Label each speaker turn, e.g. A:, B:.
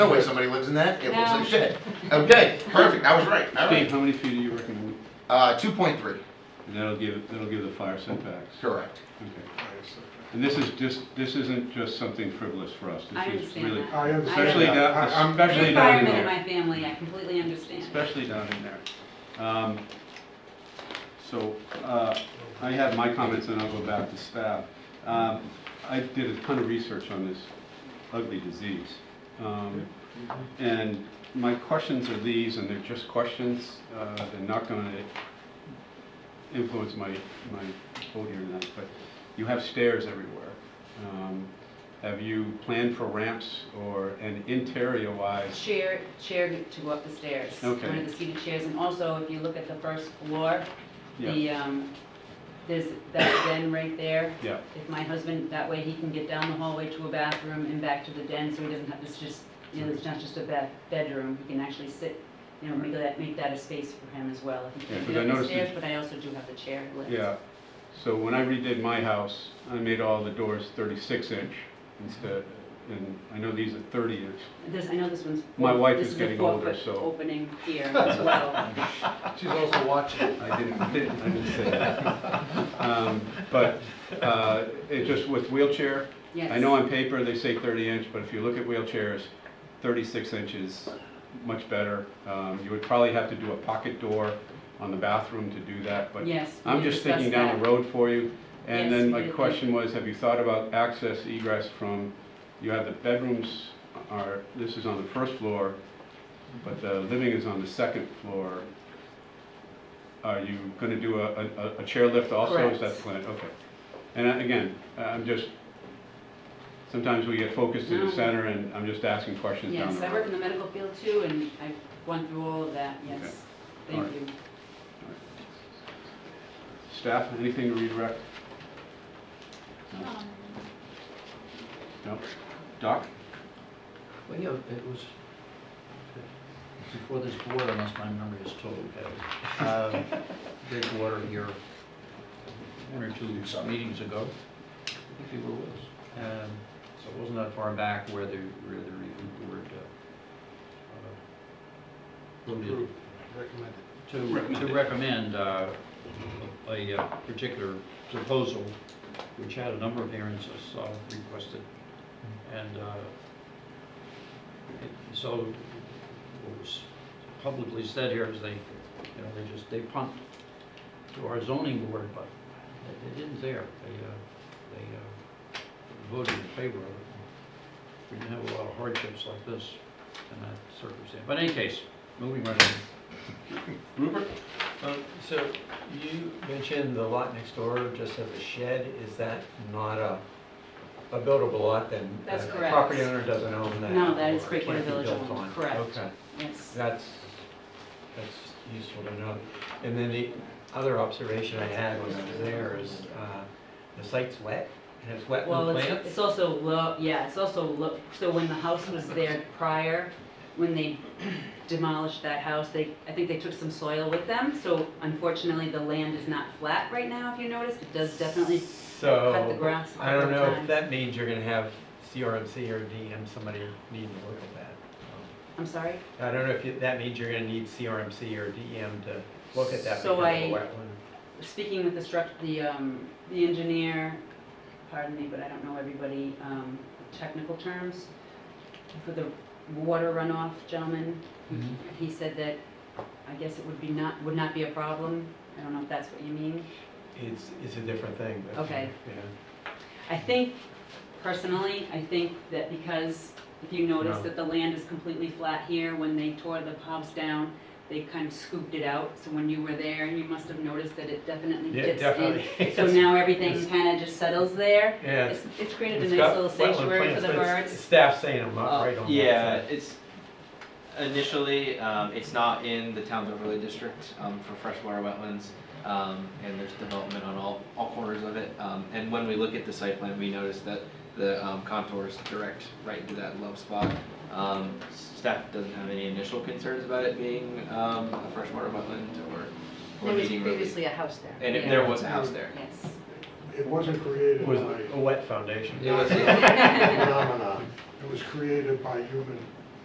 A: No way somebody lives in that, it looks
B: No.
A: like shit. Okay, perfect, I was right, all
C: Steve,
A: right.
C: how many feet do you recommend?
A: Uh, two point three,
C: And that'll give, that'll give the fire setbacks.
A: correct.
C: Okay. And this is just, this isn't just something frivolous for us. This
B: I
C: is
B: understand
C: really-
B: that.
D: I understand.
C: Especially
D: that.
C: down,
D: I- I'm-
C: especially
B: You're
C: down in
B: firemen in
C: there.
B: my family, I completely understand.
C: Especially down in there. Um, So uh, I have my comments and I'll go back to staff. Um, I did a ton of research on this ugly disease. Um, And my questions are these, and they're just questions. uh, They're not going to influence my, my vote here tonight, but you have stairs everywhere. Um, Have you planned for ramps or an interior-wise
B: Chair, chair to go up the stairs.
C: Okay.
B: One of the seated chairs, and also if you look at the first floor, the, um, there's that den right there.
C: Yeah.
B: If my husband, that way he can get down the hallway to a bathroom and back to the den, so he doesn't have, this just, you know, it's not just a ba- bedroom, he can actually sit, you know, make that, make that a space for him as well. If he
C: Yeah,
B: can
C: 'cause
B: get
C: I
B: up the
C: noticed
B: stairs,
C: that-
B: but I also do have the chair lift.
C: Yeah, so when I redid my house, I made all the doors thirty-six inch instead, and I know these are thirty inch.
B: This, I know this one's.
C: My wife
B: this
C: is
B: a
C: getting older,
B: four-foot
C: so-
B: Opening here as well.
D: She's also watching.
C: I didn't, I didn't say that. Um, But, uh, it just with wheelchair,
B: Yes.
C: I know on paper they say thirty inch, but if you look at wheelchairs, thirty-six inches, much better. Um, You would probably have to do a pocket door on the bathroom to do that, but
B: Yes. we
C: I'm
B: did
C: just thinking
B: discuss
C: down the road for you. And
B: Yes,
C: then
B: we
C: my
B: did.
C: question was, have you thought about access egress from, you have the bedrooms are, this is on the first floor, but the living is on the second floor. Are you gonna do a, a- a chairlift also? Is that
B: Correct.
C: the plan? Okay. And I- again, I'm just, sometimes we get focused in
B: No.
C: the center and I'm just asking
B: that.
C: questions down
B: Yes,
C: the
B: I work
C: road.
B: in the medical field too, and I've gone through all of that,
C: Okay.
B: yes.
C: All
B: Thank
C: right.
B: you.
C: Staff, anything to redirect? No? No? Doc?
E: Well, yeah, it was before this board, unless my memory is totally failed. Um, Bridgewater here, one or two some meetings ago, I think you were with us. Um, So it wasn't that far back where the, where the review board uh, uh, voted
D: Approved, recommended.
E: to, to recommend uh, a uh, particular proposal, which had a number of variances uh, requested. And uh, it- so what was publicly said here is they, you know, they just, they pumped to our zoning board, but they- they didn't there. They, uh, they uh, voted in favor of it. We didn't have a lot of hardships like this in that circumstance. But in any case, moving right on.
C: Rupert?
F: Um, So you mentioned the lot next door just has a shed, is that not a, a buildable lot then?
B: That's
F: The
B: correct.
F: Property owner doesn't own that?
B: No, that is
F: or
B: Breakwater
F: can't be
B: Village
F: built
B: owned,
F: on.
B: correct.
F: Okay,
B: Yes.
F: that's, that's useful to know. And then the other observation I had when I was there is, uh, the site's wet, it has
B: Well,
F: wetland
B: it's,
F: plants?
B: it's also low, yeah, it's also low, so when the house was there prior, when they demolished that house, they, I think they took some soil with them, so unfortunately, the land is not flat right now, if you noticed, it does definitely cut the
F: So,
B: grass a
F: Oh, I don't
B: couple
F: know
B: times.
F: if that means you're gonna have CRMC or DM, somebody needing to look at that. Um,
B: I'm sorry?
F: I don't know if you- that means you're gonna need CRMC or DM to look at that because
B: So
F: of the
B: I-
F: wetland.
B: speaking with the struct, the, um, the engineer, pardon me, but I don't know everybody, um, technical terms, for the water runoff gentleman, he said that, I guess it would be not, would not be a problem, I don't know if that's what you mean.
F: It's, it's a different thing, but.
B: Okay.
F: yeah.
B: I think, personally, I think that because, if you notice
F: No.
B: that the land is completely flat here, when they tore the house down, they kind of scooped it out, so when you were there, you must have noticed that it definitely
F: Yeah,
B: dips in.
F: definitely.
B: So now everything
F: Yes.
B: kind of just settles there.
F: Yeah.
B: It's, it's created
F: It's
B: a nice
F: got
B: little
F: wetland
B: sanctuary for
F: plants,
B: the
F: but it's-
B: birds. Oh.
F: Staff saying I'm not
G: Uh,
F: right on that.
G: Yeah,
F: so-
G: it's initially, um, it's not in the town's overlay district, um, for freshwater wetlands. Um, and there's development on all, all corners of it. Um, and when we look at the site plan, we notice that the, um, contours direct right into that low spot. Um, staff doesn't have any initial concerns about it being, um, a freshwater wetland or, or needing relief.
B: a house there.
G: And if there was a house there.
B: Yes.
D: It wasn't created
F: It
D: by
F: was a wet foundation.
G: It was,
D: a phenomenon. It was created by human